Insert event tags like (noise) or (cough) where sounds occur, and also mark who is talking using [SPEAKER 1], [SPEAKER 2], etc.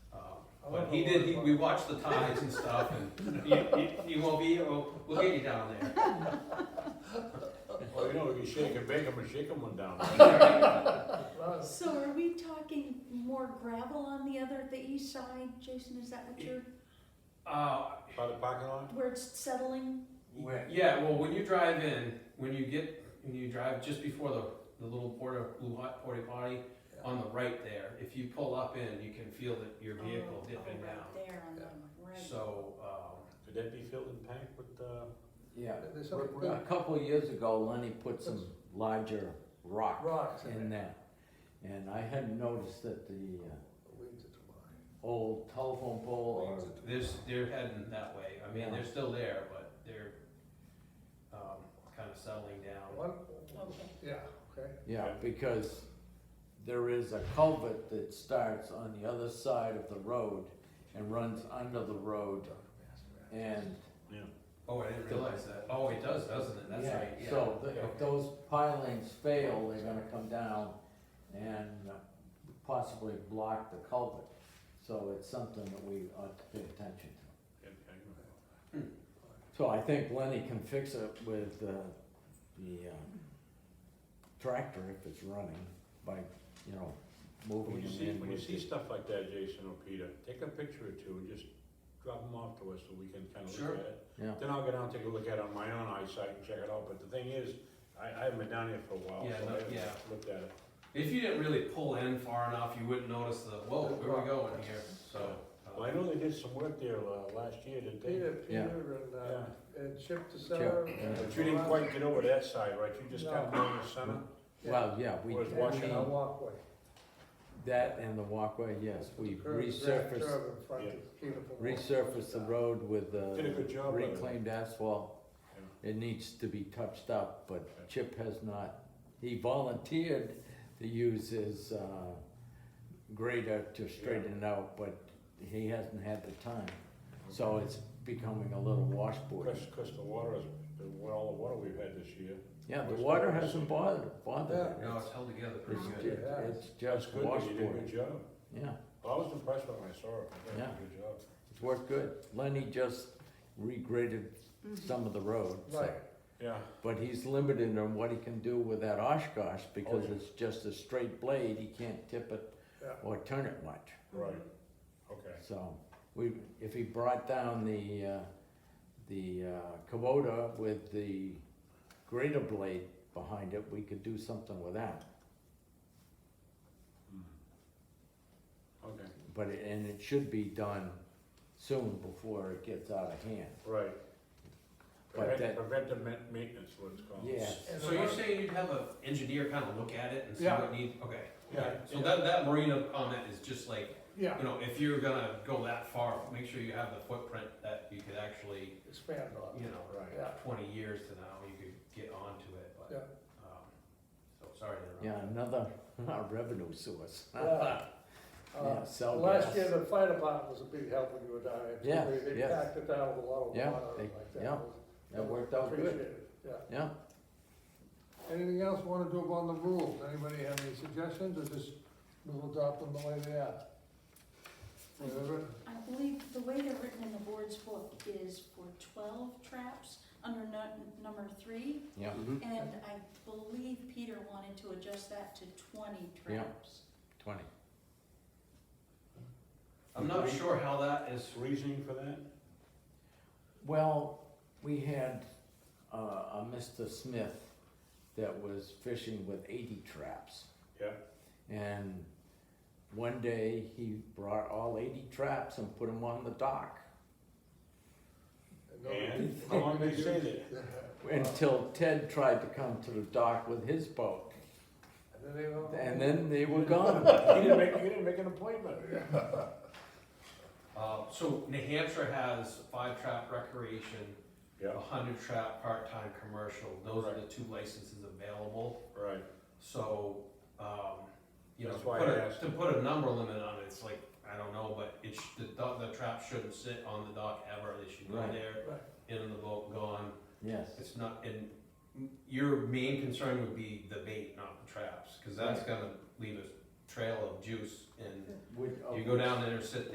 [SPEAKER 1] Um, He did, he, we watched the ties and stuff, (laughs) and you, you, you won't be, here, we'll, we'll get you down there.
[SPEAKER 2] Well, you know, you shake and bake 'em and shake 'em one down.
[SPEAKER 3] So are we talking more gravel on the other, the east side, Jason, is that what you're,
[SPEAKER 1] (laughs) Uh,
[SPEAKER 2] By the parking lot?
[SPEAKER 3] where it's settling?
[SPEAKER 1] yeah, well, when you drive in, when you get, when you drive just before the, the little porta, blue hot porta potty, on the right there, if you pull up in, you can feel that your vehicle
[SPEAKER 3] Oh,
[SPEAKER 1] dipping
[SPEAKER 3] oh,
[SPEAKER 1] down.
[SPEAKER 3] Right there on the right.
[SPEAKER 1] So, um,
[SPEAKER 2] Could that be filled and packed with, uh?
[SPEAKER 4] Yeah,
[SPEAKER 5] There's
[SPEAKER 4] We're-
[SPEAKER 5] something-
[SPEAKER 4] we're- a couple of years ago, Lenny put some larger rock
[SPEAKER 5] Rocks in
[SPEAKER 4] in
[SPEAKER 5] there.
[SPEAKER 4] there. And I hadn't noticed that the uh,
[SPEAKER 5] Winds of July.
[SPEAKER 4] old telephone pole or
[SPEAKER 5] Winds of July.
[SPEAKER 1] there's, they're heading that way, I mean, they're still there, but they're, um, kinda settling down.
[SPEAKER 5] One,
[SPEAKER 3] Okay,
[SPEAKER 5] yeah, okay.
[SPEAKER 4] Yeah, because there is a culvert that starts on the other side of the road and runs under the road and.
[SPEAKER 2] Yeah.
[SPEAKER 1] Oh, I didn't realize that, oh, it does, doesn't it, that's
[SPEAKER 4] Yeah,
[SPEAKER 1] right, yeah.
[SPEAKER 4] So th- if
[SPEAKER 1] Okay.
[SPEAKER 4] those pilings fail, they're gonna come down and possibly block the culvert. So it's something that we ought to pay attention to. So I think Lenny can fix it with, uh, the, uh, tractor if it's running by, you know, moving
[SPEAKER 2] When you
[SPEAKER 4] them
[SPEAKER 2] see,
[SPEAKER 4] in
[SPEAKER 2] when you
[SPEAKER 4] with
[SPEAKER 2] see
[SPEAKER 4] the-
[SPEAKER 2] stuff like that, Jason or Peter, take a picture or two and just drop them off to us so we can kind of
[SPEAKER 1] Sure.
[SPEAKER 2] look at it.
[SPEAKER 4] Yeah.
[SPEAKER 2] Then I'll go down and take a look at it on my own eyesight and check it out, but the thing is, I, I haven't been down here for a while,
[SPEAKER 1] Yeah,
[SPEAKER 2] so
[SPEAKER 1] no,
[SPEAKER 2] I haven't
[SPEAKER 1] yeah.
[SPEAKER 2] looked at it.
[SPEAKER 1] If you didn't really pull in far enough, you wouldn't notice the, whoa, where are we going here, so. uh,
[SPEAKER 2] Well, I know they did some work there, uh, last year, didn't they?
[SPEAKER 5] Peter,
[SPEAKER 4] Yeah.
[SPEAKER 5] Peter and, uh,
[SPEAKER 2] Yeah.
[SPEAKER 5] and Chip DeSar.
[SPEAKER 4] yeah.
[SPEAKER 2] But you didn't quite get over that side, right? You just got
[SPEAKER 5] No.
[SPEAKER 2] down the center?
[SPEAKER 4] Well, yeah, we,
[SPEAKER 2] Or it's washing
[SPEAKER 5] A
[SPEAKER 4] we-
[SPEAKER 5] walkway.
[SPEAKER 4] that and the walkway, yes, we
[SPEAKER 5] Curve, grand
[SPEAKER 4] resurfaced,
[SPEAKER 5] curve in front
[SPEAKER 2] Yeah.
[SPEAKER 5] of beautiful walkway.
[SPEAKER 4] resurfaced the road with uh,
[SPEAKER 2] Did a good job, by the way.
[SPEAKER 4] reclaimed asphalt. It needs to be touched up,
[SPEAKER 2] Okay.
[SPEAKER 4] but Chip has not, he volunteered to use his uh, grader to straighten it out, but he hasn't had the time. So it's becoming a little washboard.
[SPEAKER 2] Cause, 'cause the water is, the, wa- all the water we've had this year,
[SPEAKER 4] Yeah, the water hasn't bothered, bothered
[SPEAKER 1] No, it's
[SPEAKER 4] it.
[SPEAKER 1] held together pretty
[SPEAKER 4] It's,
[SPEAKER 1] good.
[SPEAKER 4] ju- it's
[SPEAKER 2] that's
[SPEAKER 4] just
[SPEAKER 2] good, that you did a
[SPEAKER 4] washboard,
[SPEAKER 2] good job.
[SPEAKER 4] yeah.
[SPEAKER 2] Well, I was impressed when I saw it, you did
[SPEAKER 4] Yeah.
[SPEAKER 2] a good job.
[SPEAKER 4] It's worked good. Lenny just regraded some of the road, so.
[SPEAKER 5] Right.
[SPEAKER 2] Yeah,
[SPEAKER 4] But he's limited on what he can do with that Oshkosh
[SPEAKER 5] Oh,
[SPEAKER 4] because
[SPEAKER 2] yeah.
[SPEAKER 4] it's just a straight blade. He can't tip it
[SPEAKER 5] Yeah.
[SPEAKER 4] or turn it much.
[SPEAKER 2] right, okay.
[SPEAKER 4] So we, if he brought down the, uh, the, uh, Kubota with the grater blade behind it, we could do something with that.
[SPEAKER 2] Mm-hmm. Okay,
[SPEAKER 4] But, it- and it should be done soon before it gets out of hand.
[SPEAKER 2] right.
[SPEAKER 4] But
[SPEAKER 2] Prevent-
[SPEAKER 4] that-
[SPEAKER 2] Preventive ma- maintenance, what
[SPEAKER 5] Oh,
[SPEAKER 2] it's called.
[SPEAKER 4] Yeah.
[SPEAKER 5] And
[SPEAKER 1] So
[SPEAKER 5] the
[SPEAKER 1] you're
[SPEAKER 5] road-
[SPEAKER 1] saying you'd have an engineer kind of look at it and see
[SPEAKER 5] Yeah.
[SPEAKER 1] what needs, okay.
[SPEAKER 2] Yeah,
[SPEAKER 1] okay. So
[SPEAKER 2] yeah.
[SPEAKER 1] that, that marina comment is just like, you
[SPEAKER 5] Yeah,
[SPEAKER 1] know, if you're gonna go that far, make sure you have the footprint that you could actually,
[SPEAKER 5] expand on
[SPEAKER 1] you
[SPEAKER 4] (laughs)
[SPEAKER 5] it.
[SPEAKER 1] know,
[SPEAKER 2] Right,
[SPEAKER 5] Yeah,
[SPEAKER 1] twenty years to now, you could get onto it, but. um, So, sorry to
[SPEAKER 4] Yeah,
[SPEAKER 1] interrupt.
[SPEAKER 4] another (laughs) revenue source.
[SPEAKER 5] yeah.
[SPEAKER 4] (laughs) Yeah,
[SPEAKER 5] Uh,
[SPEAKER 4] sell
[SPEAKER 5] Last
[SPEAKER 4] gas.
[SPEAKER 5] year, the fire department was a big help when you were down there. too.
[SPEAKER 4] Yeah,
[SPEAKER 5] They- They
[SPEAKER 4] yes.
[SPEAKER 5] packed it down with a lot of
[SPEAKER 4] Yeah,
[SPEAKER 5] water
[SPEAKER 4] they-
[SPEAKER 5] and like that.
[SPEAKER 4] yeah, that worked out good.
[SPEAKER 5] Appreciate it, yeah.
[SPEAKER 4] Yeah,
[SPEAKER 5] Anything else wanna do about the rules? Anybody have any suggestions or just we'll adopt them the way they are? Whatever,
[SPEAKER 3] I believe the way they're written in the board's book is for twelve traps under nu- number three,
[SPEAKER 4] yeah,
[SPEAKER 2] Mm-hmm.
[SPEAKER 3] and I believe Peter wanted to adjust that to twenty
[SPEAKER 4] Yeah.
[SPEAKER 3] traps.
[SPEAKER 4] twenty.
[SPEAKER 1] I'm not sure how that is,
[SPEAKER 2] Reasoning for that?
[SPEAKER 4] Well, we had uh, a Mr. Smith that was fishing with 80 traps.
[SPEAKER 2] Yeah.
[SPEAKER 4] And one day he brought all 80 traps and put them on the dock
[SPEAKER 5] and no-
[SPEAKER 2] And how long did they say that?
[SPEAKER 4] until Ted tried to come to the dock with his boat.
[SPEAKER 5] And then they will-
[SPEAKER 4] And then they
[SPEAKER 1] (laughs)
[SPEAKER 4] were gone.
[SPEAKER 2] You didn't make, you didn't make an appointment.
[SPEAKER 1] uh, so New Hampshire has five trap recreation,
[SPEAKER 2] Yeah,
[SPEAKER 1] a hundred trap part-time commercial, those are the two licenses available.
[SPEAKER 2] right,
[SPEAKER 1] So, um, you know, to
[SPEAKER 2] That's why
[SPEAKER 1] put
[SPEAKER 2] I
[SPEAKER 1] a,
[SPEAKER 2] asked.
[SPEAKER 1] to put a number limit on it, it's like, I don't know, but it's, the dock, the trap shouldn't sit on the dock ever, they should go
[SPEAKER 4] Right.
[SPEAKER 1] there,
[SPEAKER 5] Right.
[SPEAKER 1] in the boat, gone.
[SPEAKER 4] Yes.
[SPEAKER 1] It's not, and your main concern would be the bait, not the traps, cause that's gonna leave a trail of juice and
[SPEAKER 4] Would-
[SPEAKER 1] you go down there, sit